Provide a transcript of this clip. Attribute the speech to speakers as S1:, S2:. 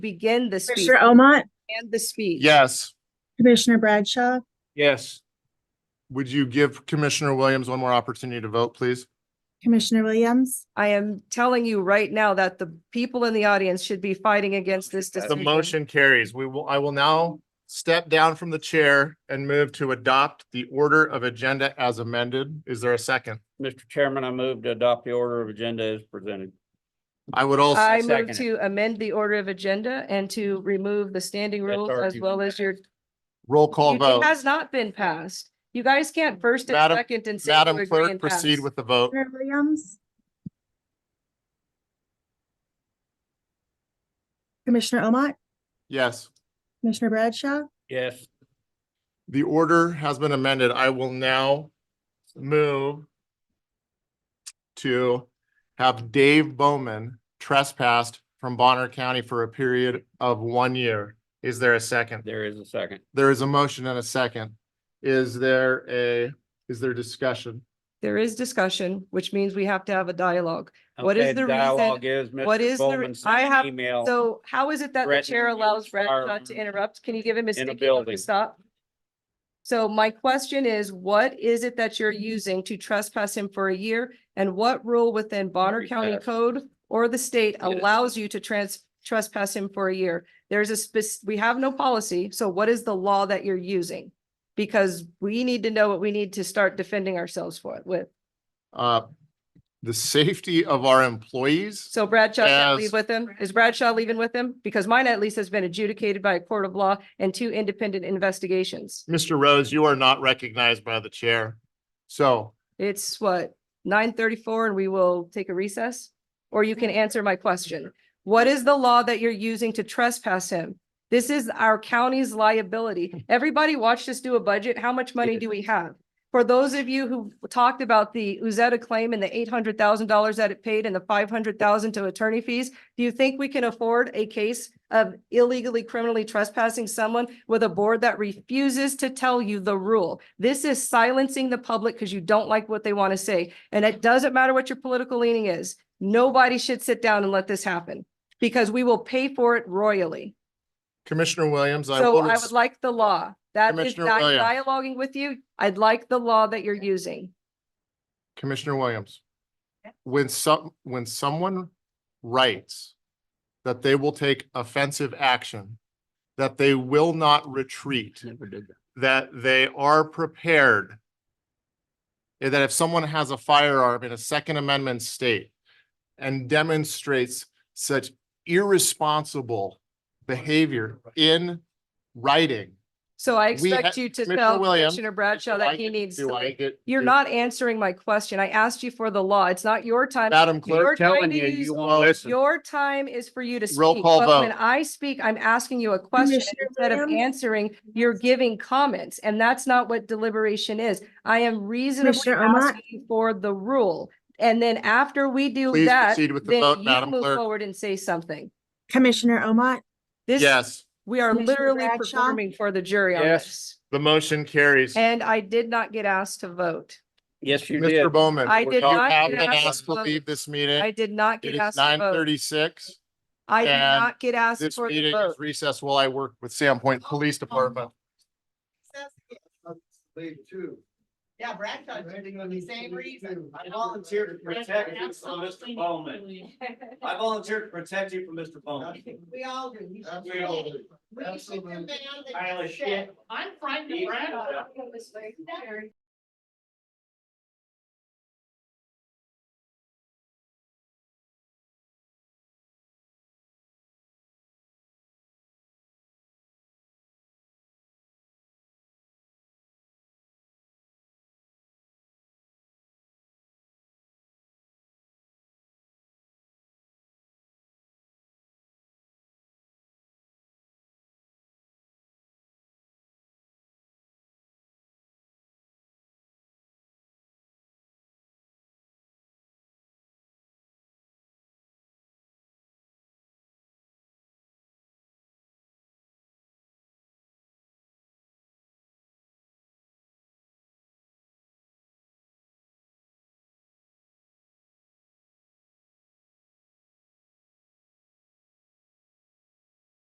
S1: begin the speech
S2: Commissioner Omat,
S1: and the speech.
S3: Yes.
S2: Commissioner Bradshaw,
S4: Yes.
S3: Would you give Commissioner Williams one more opportunity to vote, please?
S2: Commissioner Williams,
S1: I am telling you right now that the people in the audience should be fighting against this
S3: The
S1: decision.
S3: motion carries. We will, I will now step down from the chair and move to adopt the order of agenda as amended. Is there a second?
S4: Mr. Chairman, I move to adopt the order of agenda as presented.
S3: I would also,
S1: I
S4: second
S1: move
S4: it.
S1: to amend the order of agenda and to remove the standing
S4: That's
S1: rules
S4: already
S1: as
S4: been
S1: well as your.
S3: roll call vote.
S1: It has not been passed. You guys can't first and
S3: Madam-
S1: second and say. you
S3: Madam
S1: agree
S3: Clerk,
S1: and
S3: proceed
S1: pass.
S3: with the vote.
S2: Commissioner Williams. Commissioner Omat,
S3: Yes.
S2: Commissioner Bradshaw,
S4: Yes.
S3: The order has been amended. I will now move to have Dave Bowman trespassed from Bonner County for a period of one year. Is there a second?
S4: There is a second.
S3: There is a motion and a second. Is there a, is there discussion?
S1: There is discussion, which means we have to have a dialogue. What is
S4: Okay,
S1: the reason-
S4: dialogue is
S1: what
S4: Mr.
S1: is the re-
S4: Bowman
S1: I
S4: sent
S1: have-
S4: an email.
S1: So how is it that the
S4: Brett,
S1: chair allows Brett
S4: are-
S1: not to interrupt? Can you give him his
S4: in a
S1: sticky note
S4: building.
S1: to stop? So my question is, what is it that you're using to trespass him for a year? And what rule within Bonner
S4: Very
S1: County
S4: fast.
S1: Code or the state
S4: Yes.
S1: allows you to trans, trespass him for a year? There's a spec, we have no policy, so what is the law that you're using? Because we need to know what we need to start defending ourselves for with.
S3: Uh, the safety of our employees?
S1: So Bradshaw can't
S3: As-
S1: leave with him? Is Bradshaw leaving with him? Because mine at least has been adjudicated by a court of law and two independent investigations.
S3: Mr. Rose, you are not recognized by the chair. So
S1: It's what, nine thirty-four and we will take a recess? Or you can answer my question. What is the law that you're using to trespass him? This is our county's liability. Everybody watched us do a budget. How much money do we have? For those of you who talked about the Uzetta claim and the eight hundred thousand dollars that it paid and the five hundred thousand to attorney fees, do you think we can afford a case of illegally criminally trespassing someone with a board that refuses to tell you the rule? This is silencing the public because you don't like what they want to say. And it doesn't matter what your political leaning is. Nobody should sit down and let this happen because we will pay for it royally.
S3: Commissioner Williams, I
S1: So
S3: will,
S1: I
S3: res-
S1: would like the law. That is
S3: Commissioner oh,
S1: not
S3: Williams.
S1: dialoguing with you. I'd like the law that you're using.
S3: Commissioner Williams. When some, when someone writes that they will take offensive action, that they will not retreat,
S4: Never did that.
S3: that they are prepared. and That if someone has a firearm in a Second Amendment state and demonstrates such irresponsible behavior in writing.
S1: So I
S3: We ha-
S1: expect you to
S3: Commissioner
S1: tell
S3: Williams,
S1: Commissioner Bradshaw
S3: Do I
S1: that he
S3: get-
S1: needs
S3: do
S1: to
S3: I
S1: leave.
S3: get-
S1: You're
S3: do-
S1: not answering my question. I asked you for the law. It's not your time.
S3: Madam
S1: You're
S3: Clerk,
S1: trying
S4: Telling
S1: to
S4: you,
S1: use
S4: you won't listen.
S1: Your time is for you to speak.
S3: Roll call
S1: but When
S3: vote.
S1: I speak, I'm asking you a question. and
S2: Commissioner
S1: Instead of
S2: Williams?
S1: answering, you're giving comments, and that's not what deliberation is. I am reasonably
S2: Commissioner Omat?
S1: asking you for the rule. And then after we do
S3: Please
S1: that,
S3: proceed with the
S1: then
S3: vote,
S1: you
S3: Madam
S1: move
S3: Clerk.
S1: forward and say something.
S2: Commissioner Omat,
S1: This,
S3: yes,
S1: we are
S2: Commissioner
S1: literally
S2: Bradshaw?
S1: performing for the jury on
S4: Yes.
S1: this.
S3: the motion carries.
S1: And I did not get asked to vote.
S4: Yes, you did.
S3: Mr. Bowman.
S1: I
S3: you
S1: did not
S3: have
S1: get
S3: been
S1: asked
S3: asked to
S1: to
S3: leave
S1: vote.
S3: this
S1: I
S3: meeting.
S1: did not
S3: It
S1: get
S3: is
S1: asked to
S3: nine
S1: vote.
S3: thirty-six.
S1: I did
S3: and
S1: not get asked
S3: This
S1: for the
S3: meeting
S1: vote. Oh,
S3: is recessed while I work with Sam Point Police Department.
S5: They too. Yeah, Bradshaw did it for the same reason. I volunteered to protect you from Mr. Bowman.
S6: I volunteer to protect you from Mr. Bowman.
S5: We all do. We
S6: We all do.
S5: should sit them down and
S6: Pile of
S5: say,
S6: shit.
S5: I'm frightened
S6: He-
S5: of Bradshaw.